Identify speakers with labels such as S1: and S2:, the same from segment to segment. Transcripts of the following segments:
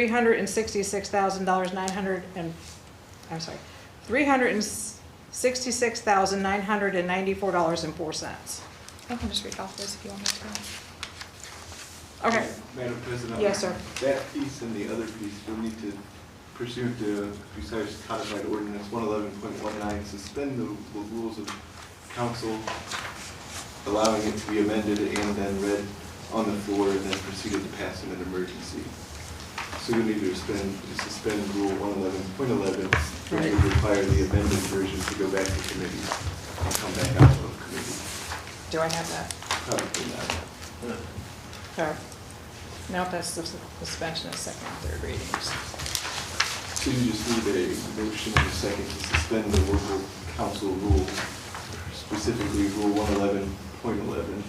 S1: three hundred and sixty-six thousand dollars, nine hundred and, I'm sorry, three hundred and sixty-six thousand, nine hundred and ninety-four dollars and four cents.
S2: I can just read off those if you want me to.
S1: Okay,
S3: Madam President?
S1: Yes, sir.
S3: That piece and the other piece, you'll need to pursue to precise codified ordinance one eleven point one nine, suspend the the rules of council, allowing it to be amended and then read on the floor and then proceeded to pass in an emergency. So you'll need to suspend, to suspend rule one eleven point eleven, which
S1: Right.
S3: would require the amended version to go back to committee and come back out of committee.
S1: do I have that?
S3: Probably not.
S1: Sorry. No, that's the suspension of second and third readings.
S3: So you just need a motion in a second to suspend the local council rule, specifically Rule 111.11,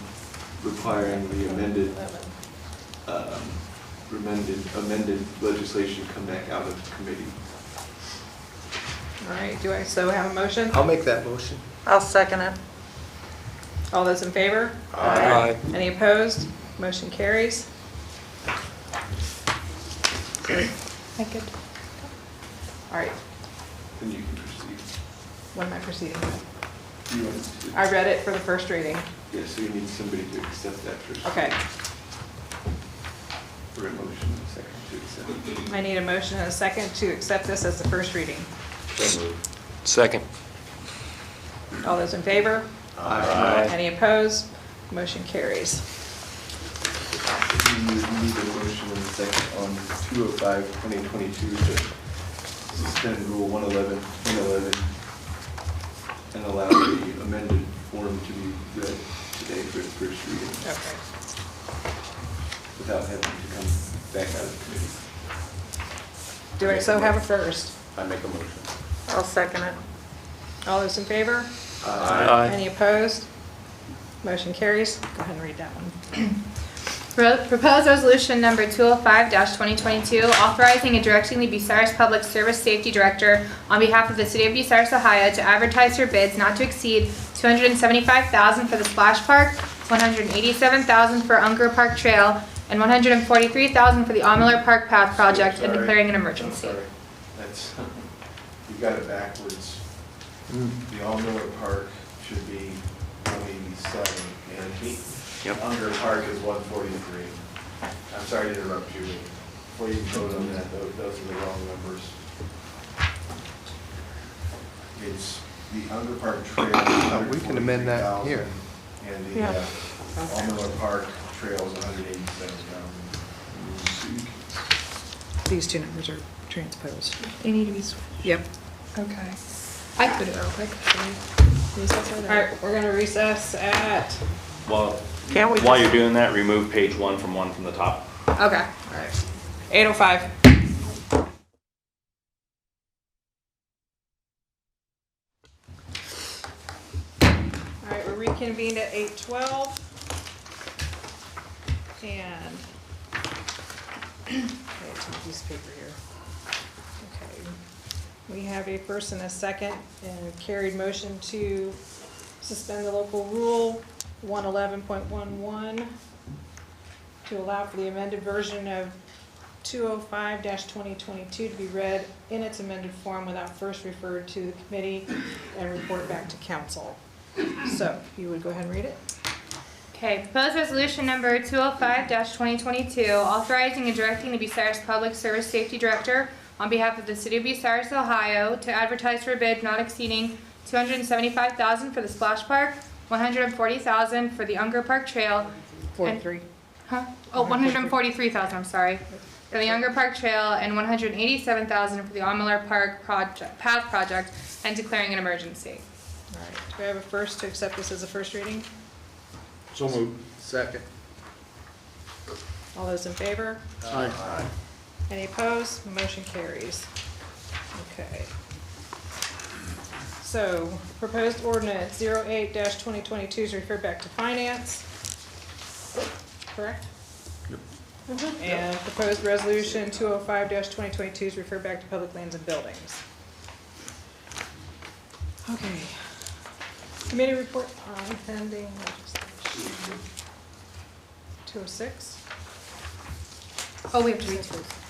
S3: requiring the amended, um, amended, amended legislation come back out of committee.
S1: All right, do I so have a motion?
S4: I'll make that motion.
S5: I'll second it.
S1: All those in favor?
S4: Aye.
S1: Any opposed? Motion carries.
S2: I could.
S1: All right,
S3: Then you can proceed.
S1: what am I proceeding with?
S3: You want to-
S1: I read it for the first reading.
S3: Yeah, so you need somebody to accept that first.
S1: Okay,
S3: For a motion in a second to accept.
S1: I need a motion and a second to accept this as the first reading.
S3: So moved.
S4: Second.
S1: All those in favor?
S3: Aye.
S1: Any opposed? Motion carries.
S3: You need a motion in a second on 205, 2022 to suspend Rule 111, 111, and allow the amended form to be read today for its first reading
S1: Okay.
S3: without having to come back out of committee.
S1: Do I so have a first?
S3: I make a motion.
S5: I'll second it.
S1: All those in favor? Any opposed? Motion carries. Go ahead and read that one.
S2: Pro- Proposed resolution number 205-2022, authorizing and directing the Bucyrus Public Service Safety Director on behalf of the City of Bucyrus, Ohio, to advertise for bids not to exceed $275,000 for the Splash Park, $187,000 for Unger Park Trail, and $143,000 for the Almiller Park Path Project, and
S3: Sorry.
S2: declaring an
S3: I'm
S2: emergency.
S3: sorry. That's, you got it backwards.
S4: Mm.
S3: The All Miller Park should be one eighty-seven, and Unger Park is one forty-three. I'm sorry to interrupt you, before you vote on that, tho- those are the wrong numbers. It's the Unger Park Trail.
S4: Uh, we can amend that here.
S3: 143,000, And the
S1: Yeah.
S3: uh, All Miller Park Trail is hundred eighty-seven thousand.
S1: These two numbers are transposed.
S2: They need to be, sw-
S1: Yep.
S2: okay. I could do it real quick. Should we recess over
S1: All
S2: there?
S1: right, we're gonna recess at,
S6: Well,
S5: Can't we
S6: while
S5: just-
S6: you're doing that, remove page one from one from the top.
S2: Okay.
S1: all right, 8:05. All right, we're reconvened at 8:12. And, I gotta take this paper here. Okay. We have a first and a second, and carried motion to suspend the local rule 111.11 to allow for the amended version of 205-2022 to be read in its amended form without first referred to the committee and report back to council. So you would go ahead and read it?
S2: Okay, proposed resolution number 205-2022, authorizing and directing the Bucyrus Public Service Safety Director on behalf of the City of Bucyrus, Ohio, to advertise for a bid not exceeding 275000 for the Splash Park, 140000 for the Unger Park Trail,
S1: Forty-three.
S2: huh? Oh, 143000 I'm sorry, for the Unger Park Trail, and 187000 for the Almiller Park Project, Path Project, and declaring an emergency.
S1: All right, do I have a first to accept this as a first reading?
S4: So moved. Second.
S1: All those in favor?
S4: Aye.
S1: Any opposed? Motion carries. Okay. So proposed ordinance 08-2022 is referred back to finance. Correct? Mm-hmm. And proposed resolution 205-2022 is referred back to public lands and buildings. Okay. Committee report on pending legislation. 206?
S2: Oh, we have to read through.